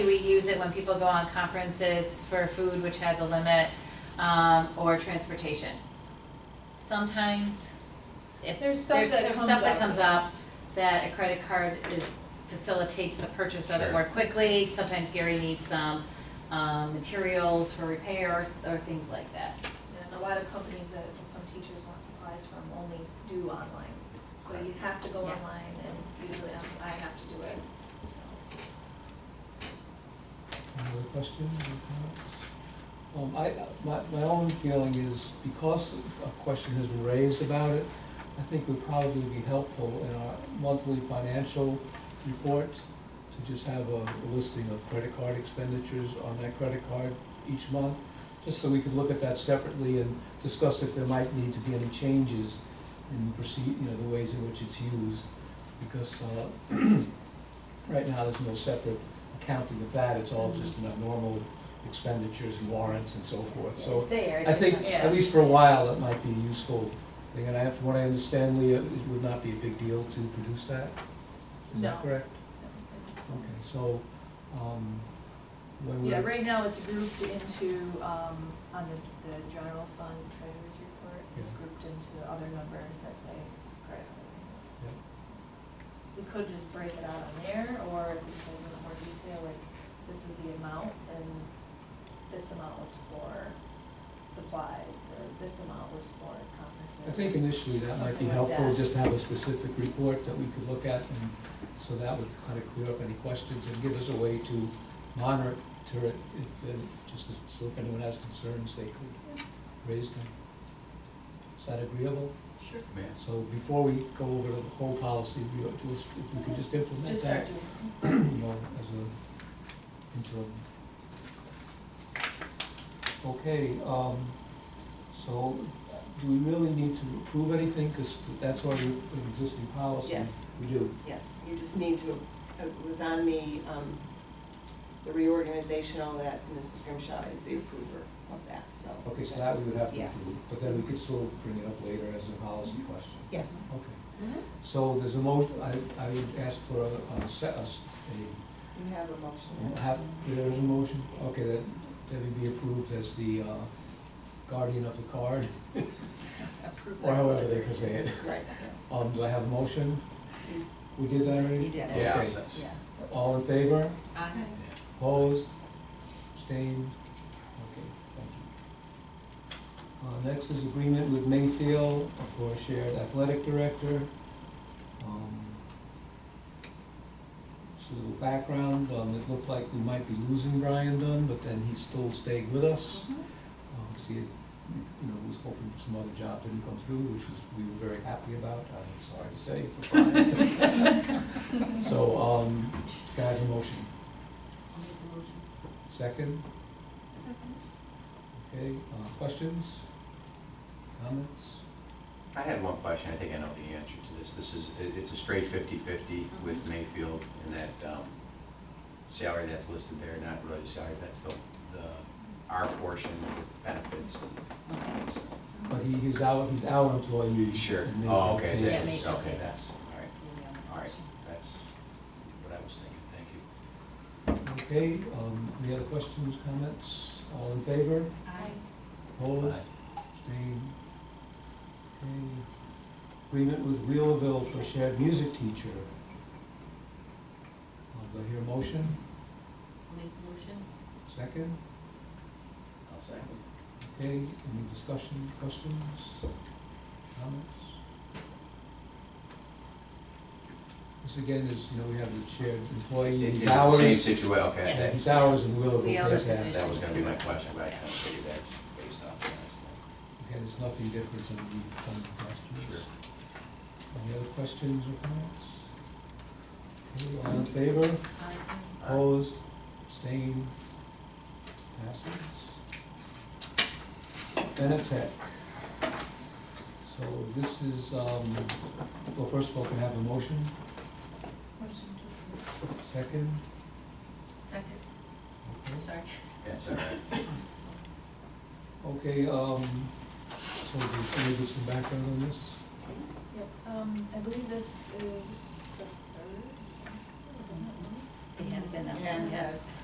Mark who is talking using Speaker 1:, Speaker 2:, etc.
Speaker 1: We use it when people go on conferences for food, which has a limit, um, or transportation. Sometimes, if
Speaker 2: There's
Speaker 1: there's,
Speaker 2: stuff
Speaker 1: there's
Speaker 2: that comes
Speaker 1: stuff that
Speaker 2: up.
Speaker 1: comes up, that a credit card is, facilitates the purchase of it
Speaker 3: Sure.
Speaker 1: more quickly. Sometimes Gary needs some, um, materials for repairs or things like that.
Speaker 2: And a lot of companies, that and some teachers want supplies from only do online. So you have to go
Speaker 1: Yeah.
Speaker 2: online and usually I'm- I have to do it, so.
Speaker 4: Any other questions or comments? Um, I, my, my own feeling is because a question has been raised about it, I think would probably be helpful in our monthly financial report to just have a listing of credit card expenditures on that credit card each month, just so we could look at that separately and discuss if there might need to be any changes in proceed, you know, the ways in which it's used. Because, uh, right now, there's no separate accounting of that, it's all just in our normal expenditures and warrants and so forth, so.
Speaker 1: It's there, it's
Speaker 4: I
Speaker 1: just
Speaker 4: think,
Speaker 1: not-
Speaker 2: Yeah.
Speaker 4: at least for a while, that might be a useful thing, and I, from what I understand, Leah, it would not be a big deal to produce that? Is
Speaker 2: No.
Speaker 4: that correct? Okay, so, um, when
Speaker 2: Yeah,
Speaker 4: we're,
Speaker 2: right now it's grouped into, um, on the, the general fund treasurer's report, it's
Speaker 4: Yeah.
Speaker 2: grouped into the other numbers that say credit card.
Speaker 4: Yeah.
Speaker 2: We could just break it out on there, or if it's a little more detail, like, this is the amount, and this amount was for supplies, or this amount was for conferences.
Speaker 4: I think initially that might be
Speaker 2: Something like
Speaker 4: helpful,
Speaker 2: that.
Speaker 4: just to have a specific report that we could look at, and so that would kind of clear up any questions and give us a way to monitor it if, uh, just as- so if anyone has concerns, they could raise them. Is that agreeable?
Speaker 2: Sure.
Speaker 3: May I?
Speaker 4: So before we go over the whole policy, we ought to, if we could just implement
Speaker 2: Just start
Speaker 4: that,
Speaker 2: doing.
Speaker 4: you know, as a interim. Okay, um, so do we really need to approve anything, because that's already an existing policy?
Speaker 5: Yes.
Speaker 4: We do,
Speaker 5: Yes, you just need to, it was on the, um, the reorganizational that Mrs. Grimshaw is the approver of that, so.
Speaker 4: okay, so that we would have to
Speaker 5: Yes.
Speaker 4: approve, but then we could still bring it up later as a policy question.
Speaker 5: Yes,
Speaker 4: Okay, so there's a mo, I, I would ask for a, a, se- a s- a
Speaker 5: you have a motion.
Speaker 4: Have, there is a motion, okay, that, that would be approved as the uh, guardian of the card,
Speaker 1: Approve
Speaker 4: or
Speaker 1: it.
Speaker 4: however they can say it.
Speaker 5: Right, yes.
Speaker 4: Um, do I have a motion? We did that already?
Speaker 1: You did.
Speaker 5: Yes.
Speaker 3: Yeah.
Speaker 4: Okay.
Speaker 3: that's-
Speaker 1: Yeah.
Speaker 4: All in favor?
Speaker 1: Aye.
Speaker 4: Opposed? Abstained? Okay, thank you. Uh, next is agreement with Mayfield for shared athletic director. Um, Just a little background, um, it looked like we might be losing Brian Dunn, but then he still stayed with us. Uh, Because he, had, you know, was hoping for some other job, didn't come through, which was, we were very happy about, I'm sorry to say, for Brian. So, um, can I have a motion? Second? Okay, uh, questions? Comments?
Speaker 3: I had one question, I think I know the answer to this. This is, it- it's a straight fifty-fifty
Speaker 1: Mm-hmm.
Speaker 3: with Mayfield and that um, salary that's listed there, not really salary, that's the, the, our portion with benefits. and-
Speaker 4: But he, he's our, he's our employee.
Speaker 3: Sure,
Speaker 4: And
Speaker 3: oh, okay,
Speaker 4: he's-
Speaker 3: so
Speaker 1: Yeah,
Speaker 3: it's-
Speaker 1: Mayfield
Speaker 3: okay,
Speaker 1: is.
Speaker 3: that's, all right, all right, that's what I was thinking, thank you.
Speaker 4: Okay, um, any other questions, comments? All in favor?
Speaker 1: Aye.
Speaker 4: Opposed? Abstained? Okay. Agreement with Wheelerville for shared music teacher. Uh, Do I hear a motion?
Speaker 1: Make motion?
Speaker 4: Second?
Speaker 3: I'll say.
Speaker 4: Okay, any discussion, questions, comments? This again is, you know, we have the shared employee,
Speaker 3: It-
Speaker 4: his
Speaker 3: It's the same
Speaker 4: hours,
Speaker 3: situation, okay,
Speaker 1: Yes.
Speaker 4: his hours and will of
Speaker 1: We
Speaker 4: the
Speaker 1: all
Speaker 4: place
Speaker 1: have
Speaker 4: have.
Speaker 3: that, that was gonna be my question, but I kind of figured that's based off that.
Speaker 4: Again, it's nothing different than we've done the past years.
Speaker 3: Sure.
Speaker 4: Any other questions or comments? Okay, all in favor?
Speaker 1: Aye.
Speaker 4: Opposed, abstained, passes. Benetech. So this is, um, well, first of all, can I have a motion?
Speaker 2: Motion to approve.
Speaker 4: Second?
Speaker 1: Second,
Speaker 4: Okay.
Speaker 1: sorry.
Speaker 3: That's all right.
Speaker 4: Okay, um, so do you can you give some background on this?
Speaker 2: Yep, um, I believe this is the third, yes, is it not?
Speaker 1: It has been that
Speaker 5: Yeah,
Speaker 1: long,
Speaker 5: it
Speaker 1: yes.
Speaker 5: has.